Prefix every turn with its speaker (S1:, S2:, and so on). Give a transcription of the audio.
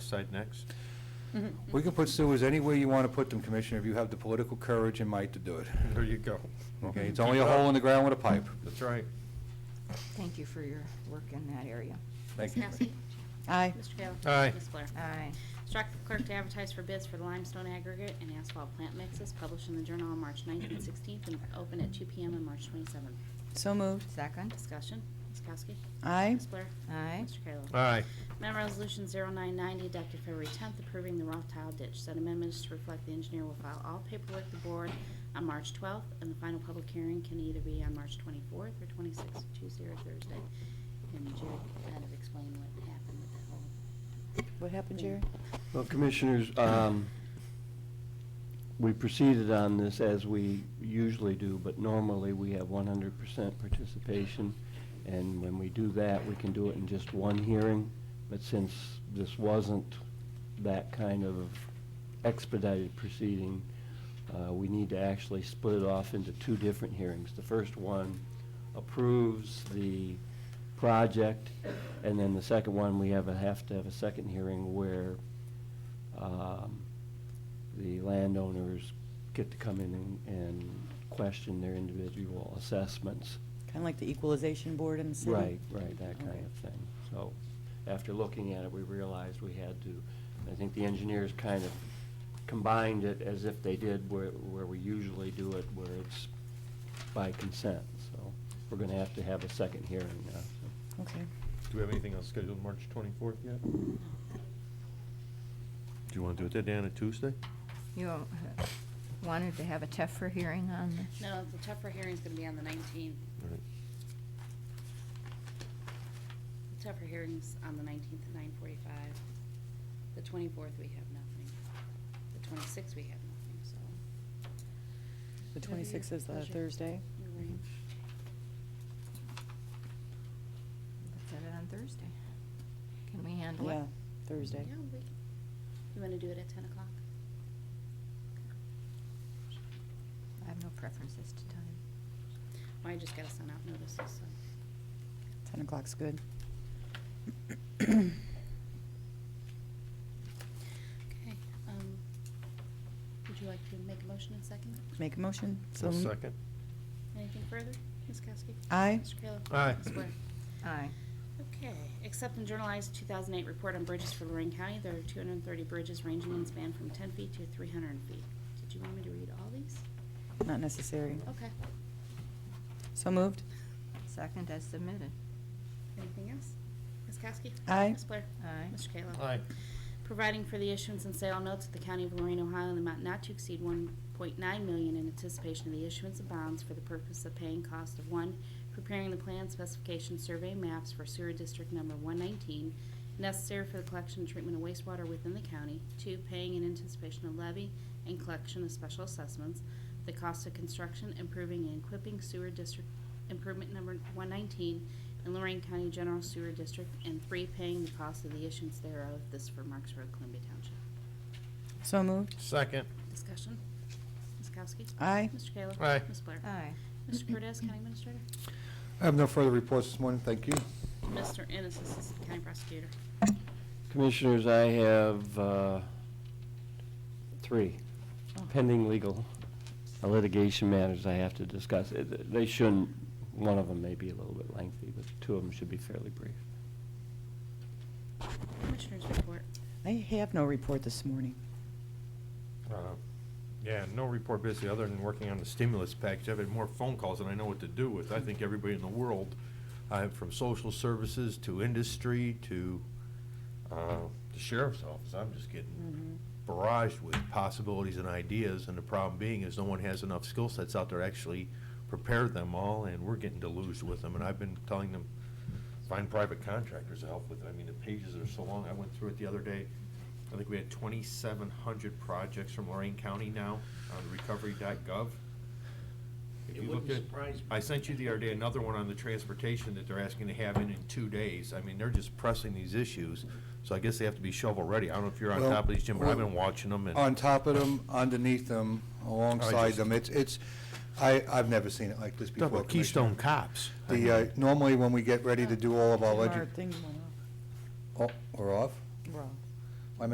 S1: decide next?
S2: We can put sewers anywhere you want to put them, Commissioner, if you have the political courage and might to do it.
S1: There you go.
S2: Okay, it's only a hole in the ground with a pipe.
S1: That's right.
S3: Thank you for your work in that area.
S2: Thank you.
S4: Ms. Kowski?
S3: Aye.
S4: Mr. Kayla?
S1: Aye.
S4: Ms. Blair?
S3: Aye.
S4: Instruct the clerk to advertise for bids for the limestone aggregate and asphalt plant mixes published in the Journal on March 9th and 16th and open at 2 PM on March 27th.
S5: So moved.
S3: Second?
S4: Discussion, Ms. Kowski?
S5: Aye.
S4: Ms. Blair?
S3: Aye.
S4: Mr. Kayla?
S1: Aye.
S4: Amendment Resolution 0990 adopted February 10th approving the rough tile ditch. Said amendment is to reflect the engineer will file all paperwork with the board on March 12th, and the final public hearing can either be on March 24th or 26th, Tuesday or Thursday. And Jared kind of explained what happened with that whole
S5: What happened, Jerry?
S6: Well, Commissioners, um, we proceeded on this as we usually do, but normally we have 100% participation, and when we do that, we can do it in just one hearing, but since this wasn't that kind of expedited proceeding, uh, we need to actually split it off into two different hearings. The first one approves the project, and then the second one, we have, a- have to have a second hearing where um, the landowners get to come in and- and question their individual assessments.
S5: Kind of like the equalization board in the city?
S6: Right, right, that
S5: Okay.
S6: kind of thing. So, after looking at it, we realized we had to, I think the engineers kind of combined it as if they did where, where we usually do it, where it's by consent, so we're gonna have to have a second hearing now, so.
S5: Okay.
S1: Do we have anything else scheduled March 24th yet? Do you want to do it that day on a Tuesday?
S3: You uh, wanted to have a TEFRA hearing on this?
S4: No, the tougher hearing's gonna be on the nineteenth.
S1: All right.
S4: The tougher hearing's on the nineteenth at nine forty-five. The twenty-fourth, we have nothing. The twenty-sixth, we have nothing, so.
S5: The
S4: Whatever your
S5: 26th is the
S4: pleasure.
S5: Thursday?
S4: Your range.
S3: Let's set it on Thursday. Can we handle it?
S5: Yeah, Thursday.
S4: Yeah, we, you wanna do it at ten o'clock?
S3: I have no preferences to time.
S4: Well, I just gotta send out notices, so.
S5: 10 o'clock's good.
S4: Okay, um, would you like to make a motion and second it?
S5: Make a motion? So
S1: I'll
S5: moved.
S1: second.
S4: Anything further? Ms. Kowski?
S5: Aye.
S4: Mr. Kayla?
S1: Aye.
S4: Ms. Blair?
S3: Aye.
S4: Okay, accept and journalize 2008 report on bridges for Lorraine County. There are 230 bridges ranging in span from 10 feet to 300 feet. Did you want me to read all these?
S5: Not necessary.
S4: Okay.
S5: So moved.
S3: Second as submitted.
S4: Anything else? Ms. Kowski?
S5: Aye.
S4: Ms. Blair?
S3: Aye.
S4: Mr. Kayla?
S1: Aye.
S4: Providing for the issuance and sale of notes of the County of Lorraine, Ohio, in the amount not to exceed 1.9 million in anticipation of the issuance of bonds for the purpose of paying cost of, one, preparing the plan specification survey maps for sewer district number 119, necessary for the collection and treatment of wastewater within the county. Two, paying in anticipation of levy and collection of special assessments, the cost of construction, improving and equipping sewer district improvement number 119 in Lorraine County General Sewer District. And three, paying the cost of the issuance thereof, this for Marks Road, Columbia Township.
S5: So moved.
S1: Second.
S4: Discussion? Ms. Kowski?
S5: Aye.
S4: Mr. Kayla?
S1: Aye.
S4: Ms. Blair?
S3: Aye.
S4: Mr. Cortez, County Administrator?
S2: I have no further reports this morning, thank you.
S4: Mr. Ennis, Assistant County Prosecutor.
S6: Commissioners, I have uh, three pending legal litigation matters I have to discuss. Uh, th- They shouldn't, one of them may be a little bit lengthy, but two of them should be fairly brief.
S4: Commissioners report.
S5: I have no report this morning.
S1: Uh, Yeah, no report busy, other than working on the stimulus package. I've had more phone calls than I know what to do with. I think everybody in the world, uh, from social services to industry to uh, the sheriff's office, I'm just getting barraged with possibilities and ideas, and the problem being is no one has enough skill sets out there to actually prepare them all, and we're getting deluged with them, and I've been telling them, find private contractors to help with it. I mean, the pages are so long. I went through it the other day. I think we had twenty-seven hundred projects from Lorraine County now on recovery.gov. If
S7: It
S1: you
S7: wouldn't
S1: look at-
S7: surprise me.
S1: I sent you the other day another one on the transportation that they're asking to have in in two days. I mean, they're just pressing these issues, so I guess they have to be shovel-ready. I don't know if you're on
S2: Well,
S1: top of these, Jim, but I've
S2: well, uh,
S1: been watching them and.
S2: On top of them, underneath them, alongside
S1: just-
S2: them, it's, it's, I, I've never seen it like this
S1: Talk
S2: before,
S1: about
S2: Commissioner.
S1: Keystone Cops.
S2: The, uh, normally when we get ready to do all of our,
S5: Our
S2: legi-
S5: thing went off.
S2: oh, we're off?